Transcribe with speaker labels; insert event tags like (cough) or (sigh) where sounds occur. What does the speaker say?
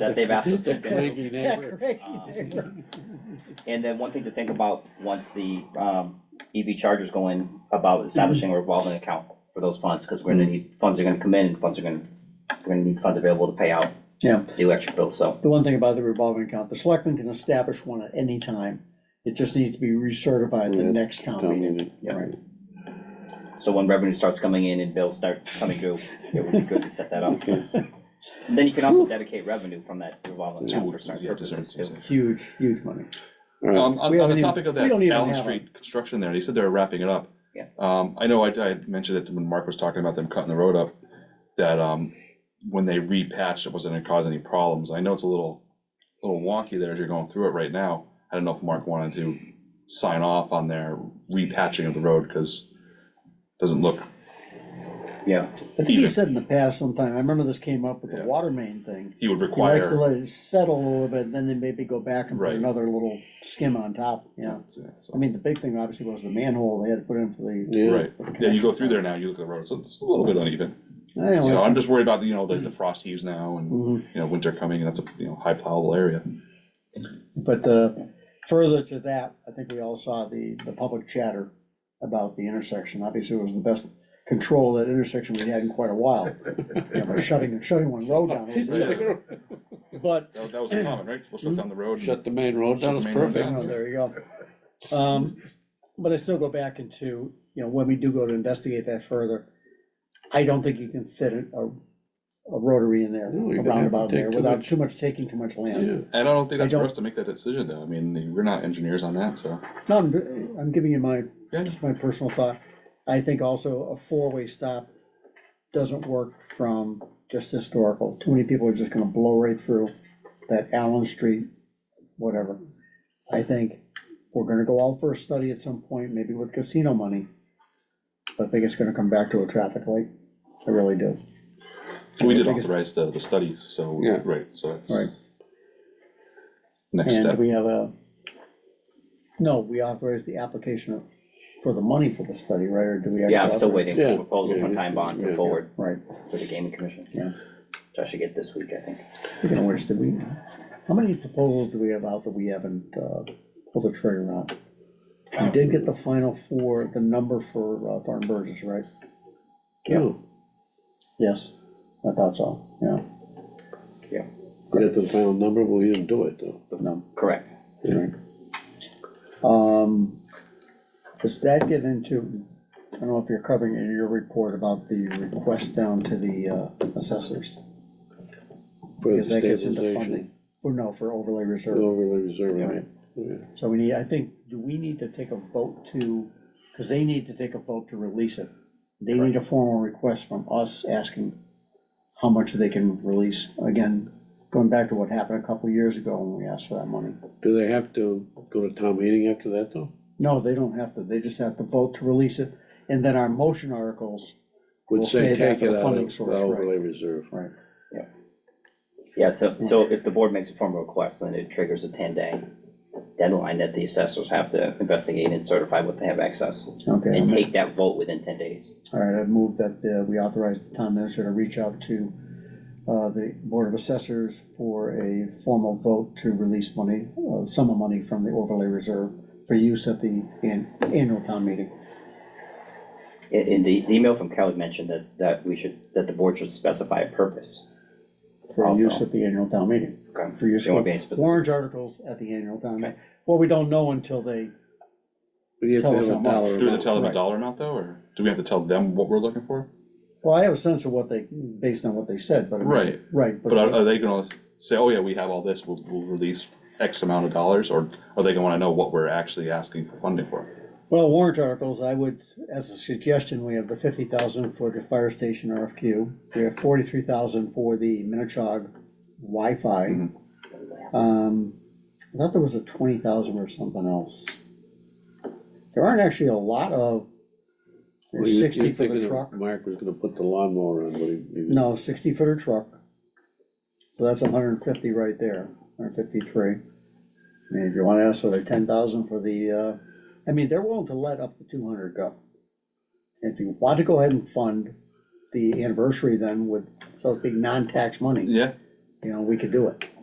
Speaker 1: that they've asked
Speaker 2: (laughs)
Speaker 1: us to do.
Speaker 3: Cranky
Speaker 4: Yeah,
Speaker 3: neighbor.
Speaker 4: great.
Speaker 1: And then one thing to think about, once the, um, EV chargers go in, about establishing a revolving account for those funds, because we're gonna need, funds are gonna come in, and funds are gonna, we're gonna need funds available to pay out
Speaker 4: Yeah.
Speaker 1: the electric bill, so,
Speaker 4: The one thing about the revolving account, the selectmen can establish one at any time. It just needs to be recertified the
Speaker 3: Yeah,
Speaker 4: next town
Speaker 3: Town
Speaker 4: meeting.
Speaker 3: meeting.
Speaker 4: Yeah, right.
Speaker 1: so when revenue starts coming in and bills start coming due, it would be good to set that up.
Speaker 3: Okay.
Speaker 1: And then you can also dedicate revenue from that revolving account for certain
Speaker 2: Yeah, to certain
Speaker 1: purposes too.
Speaker 2: things.
Speaker 4: Huge, huge money.
Speaker 3: All right.
Speaker 2: Um, on,
Speaker 4: We don't
Speaker 2: on the
Speaker 4: even-
Speaker 2: topic of
Speaker 4: we
Speaker 2: that
Speaker 4: don't even
Speaker 2: Allen
Speaker 4: have
Speaker 2: Street construction there, they said they were wrapping it up.
Speaker 1: Yeah.
Speaker 2: Um, I know I, I had mentioned it when Mark was talking about them cutting the road up, that, um, when they repatched, it wasn't gonna cause any problems. I know it's a little, little wonky there as you're going through it right now. I don't know if Mark wanted to sign off on their repatching of the road, cause it doesn't look,
Speaker 1: Yeah,
Speaker 4: I think he said in the past sometime, I remember this came up with the
Speaker 2: Yeah.
Speaker 4: water main thing.
Speaker 2: he would
Speaker 4: He likes to
Speaker 2: require.
Speaker 4: let it settle a little bit, then they maybe go back and put
Speaker 2: Right.
Speaker 4: another little skim on top, yeah.
Speaker 2: So-
Speaker 4: I mean, the big thing obviously was the manhole they had to put in for the.
Speaker 3: Yeah,
Speaker 2: Right, yeah, you go through there now, you look at the road, so it's a little bit uneven.
Speaker 4: I don't know,
Speaker 2: So I'm
Speaker 4: it's- Mm-hmm.
Speaker 2: just worried about, you know, the, the frost heaves now and,
Speaker 4: Mhm.
Speaker 2: you know, winter coming, and that's a, you know, high plowable area.
Speaker 4: But uh, further to that, I think we all saw the, the public chatter about the intersection. Obviously, it was the best control of that intersection we had in quite a while. You know, by Shutting, shutting one
Speaker 3: (laughs)
Speaker 4: road down. it was- But,
Speaker 2: That, that was a comment, right? We'll shut down the road. and-
Speaker 3: Shut the main road down,
Speaker 2: Shut the
Speaker 3: it's
Speaker 2: main road
Speaker 3: perfect.
Speaker 2: down.
Speaker 4: you know, there you go. Um, But I still go back into, you know, when we do go to investigate that further, I don't think you can fit a, a rotary in there,
Speaker 3: No, you're
Speaker 4: a
Speaker 3: gonna have to
Speaker 4: roundabout in
Speaker 3: take
Speaker 4: there,
Speaker 3: too
Speaker 4: without
Speaker 3: much.
Speaker 4: too much, taking too much land.
Speaker 3: Yeah.
Speaker 2: And I don't think
Speaker 4: I
Speaker 2: that's for
Speaker 4: don't-
Speaker 2: us to make that decision though. I mean, we're not engineers on that, so.
Speaker 4: No, I'm, I'm giving you my,
Speaker 2: Yeah.
Speaker 4: just my personal thought. I think also a four-way stop doesn't work from just historical. Too many people are just gonna blow right through that Allen Street, whatever. I think we're gonna go out for a study at some point, maybe with casino money. But I think it's gonna come back to a traffic light. I really do.
Speaker 2: We did
Speaker 4: I think it's-
Speaker 2: authorize the, the study, so,
Speaker 3: Yeah.
Speaker 2: right, so that's.
Speaker 4: Right.
Speaker 2: Next
Speaker 4: And
Speaker 2: step.
Speaker 4: we have a, no, we authorized the application for the money for the study, right? Or do we?
Speaker 1: yeah, I'm still
Speaker 4: authorize-
Speaker 1: waiting for
Speaker 3: Yeah.
Speaker 1: a proposal from
Speaker 3: Yeah.
Speaker 1: Time Bond
Speaker 3: Yeah.
Speaker 1: to forward
Speaker 4: Right.
Speaker 1: to the gaming commission.
Speaker 4: Yeah.
Speaker 1: Which I should get this week, I think.
Speaker 4: Speaking of which, did we, how many proposals do we have out that we haven't, uh, pulled the trigger on? We did get the final four, the number for uh, Thornton Burgess, right?
Speaker 3: Yeah.
Speaker 4: Yes, I thought so, yeah,
Speaker 3: Get to the final number, well, you didn't do it though.
Speaker 4: no,
Speaker 1: Correct.
Speaker 4: right. Um, does that get into, I don't know if you're covering it in your report about the request down to the, uh, assessors?
Speaker 3: For the
Speaker 4: Because that gets into
Speaker 3: stabilization,
Speaker 4: funding, or no, for overlay reserve.
Speaker 3: overlay reserve,
Speaker 1: Yeah.
Speaker 3: right? Yeah.
Speaker 4: So we need, I think, do we need to take a vote to, because they need to take a vote to release it. They need a formal request from us asking how much they can release. Again, going back to what happened a couple of years ago when we asked for that money.
Speaker 3: Do they have to go to town meeting after that though?
Speaker 4: No, they don't have to, they just have to vote to release it, and then our motion articles, We'll
Speaker 3: Would say
Speaker 4: save that
Speaker 3: take
Speaker 4: for
Speaker 3: it
Speaker 4: the
Speaker 3: out
Speaker 4: funding
Speaker 3: of the
Speaker 4: source, right.
Speaker 3: overlay reserve.
Speaker 4: right?
Speaker 1: Yeah, so, so if the board makes a formal request, then it triggers a ten-day deadline that the assessors have to investigate and certify what they have access,
Speaker 4: Okay,
Speaker 1: and
Speaker 4: I'm-
Speaker 1: take that vote within ten days.
Speaker 4: all right, I move that uh, we authorize the town minister to reach out to uh, the Board of Assessors for a formal vote to release money, uh, sum of money from the overlay reserve for use at the an- annual town meeting.
Speaker 1: In, in the, the email from Kelly mentioned that, that we should, that the board should specify a purpose.
Speaker 4: For use
Speaker 1: Also.
Speaker 4: at the annual town meeting.
Speaker 1: Okay.
Speaker 4: For use
Speaker 1: There won't
Speaker 4: for
Speaker 1: be any specific,
Speaker 4: warrant articles at the annual town meeting. Well, we don't know until they,
Speaker 3: We have to
Speaker 4: Tell
Speaker 3: have
Speaker 4: us
Speaker 3: a
Speaker 4: how much.
Speaker 3: dollar.
Speaker 2: Do we have
Speaker 3: amount.
Speaker 2: to tell them a
Speaker 4: Right.
Speaker 2: dollar amount though, or do we have to tell them what we're looking for?
Speaker 4: well, I have a sense of what they, based on what they said, but. I mean-
Speaker 2: Right,
Speaker 4: Right,
Speaker 2: but are,
Speaker 4: but
Speaker 2: are they gonna say, oh yeah, we have all this, we'll, we'll release X amount of dollars, or are they gonna wanna know what we're actually asking for funding for?
Speaker 4: Well, warrant articles, I would, as a suggestion, we have the fifty thousand for the fire station RFQ. We have forty-three thousand for the Minichog Wi-Fi.
Speaker 2: Mhm.
Speaker 3: Mm-hmm.
Speaker 4: Um, I thought there was a twenty thousand or something else. There aren't actually a lot of,
Speaker 3: Well,
Speaker 4: there's
Speaker 3: you-
Speaker 4: sixty
Speaker 3: you're
Speaker 4: for the
Speaker 3: thinking
Speaker 4: truck,
Speaker 3: Mark was gonna put the lawnmower on, but he. he-
Speaker 4: no, sixty footer truck. So that's hundred and fifty right there, hundred fifty-three. I mean, if you wanna ask for the ten thousand for the, uh, I mean, they're willing to let up to two hundred go. If you want to go ahead and fund the anniversary then with, so it's being non-tax money,
Speaker 2: Yeah,
Speaker 4: you know, we could do it.